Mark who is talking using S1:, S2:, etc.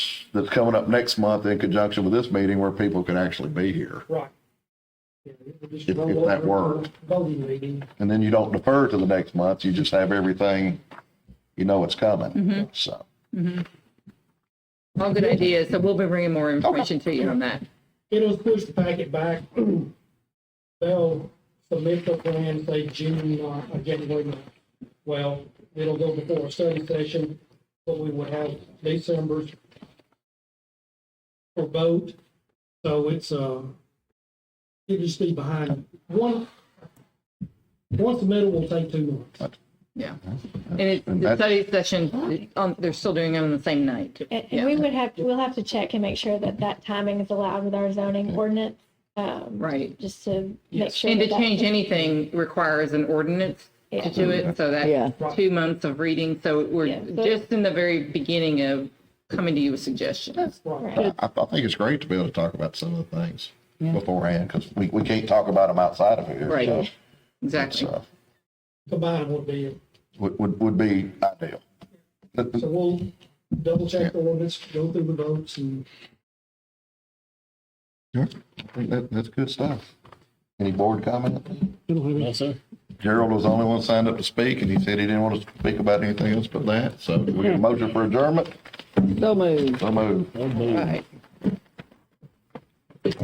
S1: that's coming up next month in conjunction with this meeting where people can actually be here.
S2: Right. Yeah, it would just
S1: If-
S2: roll
S1: if that
S2: over to
S1: worked.
S2: the Voting meeting,
S1: And then you don't defer to the next month, you just have everything, you know it's
S3: Mm-hmm.
S1: coming, so.
S3: All good ideas, so we'll be bringing more information to you on that.
S2: it'll push the packet back. They'll submit the plan, say June, uh, or January, ninth. well, it'll go before a study session, but we would have December's for vote, so it's, uh, it'll just be behind, one, one submittal will take two months.
S3: Yeah. And it,
S1: And
S3: the
S1: that's-
S3: study session, um, they're still doing it on the same night.
S4: And
S3: Yeah.
S4: and we would have, we'll have to check and make sure that that timing is allowed with our zoning ordinance. um,
S3: Mm-hmm. Right.
S4: Just to make
S2: Yes.
S4: sure.
S3: And to
S4: that that-
S3: change anything requires an ordinance to
S4: Yeah.
S3: do it, so
S5: Yeah.
S3: that's two months of reading. So we're
S4: Yeah, so-
S3: just in the very beginning of coming to you with suggestions.
S2: Right.
S1: I, I think it's great to be able to talk about some of the things beforehand, because we, we can't talk about them outside of here.
S3: Right.
S1: so-
S3: Exactly.
S1: So,
S2: Combined would be it.
S1: would, would, would be ideal. But-
S2: So we'll double check the ordinance, go through the votes and
S1: Sure. I think that, that's good stuff. Any board comment?
S6: No, sir.
S1: Gerald was the only one signed up to speak, and he said he didn't want to speak about anything else but that, so we get a motion for adjournment,
S5: So moved.
S1: so moved.
S6: Oh, boy.
S1: uh,
S3: Right.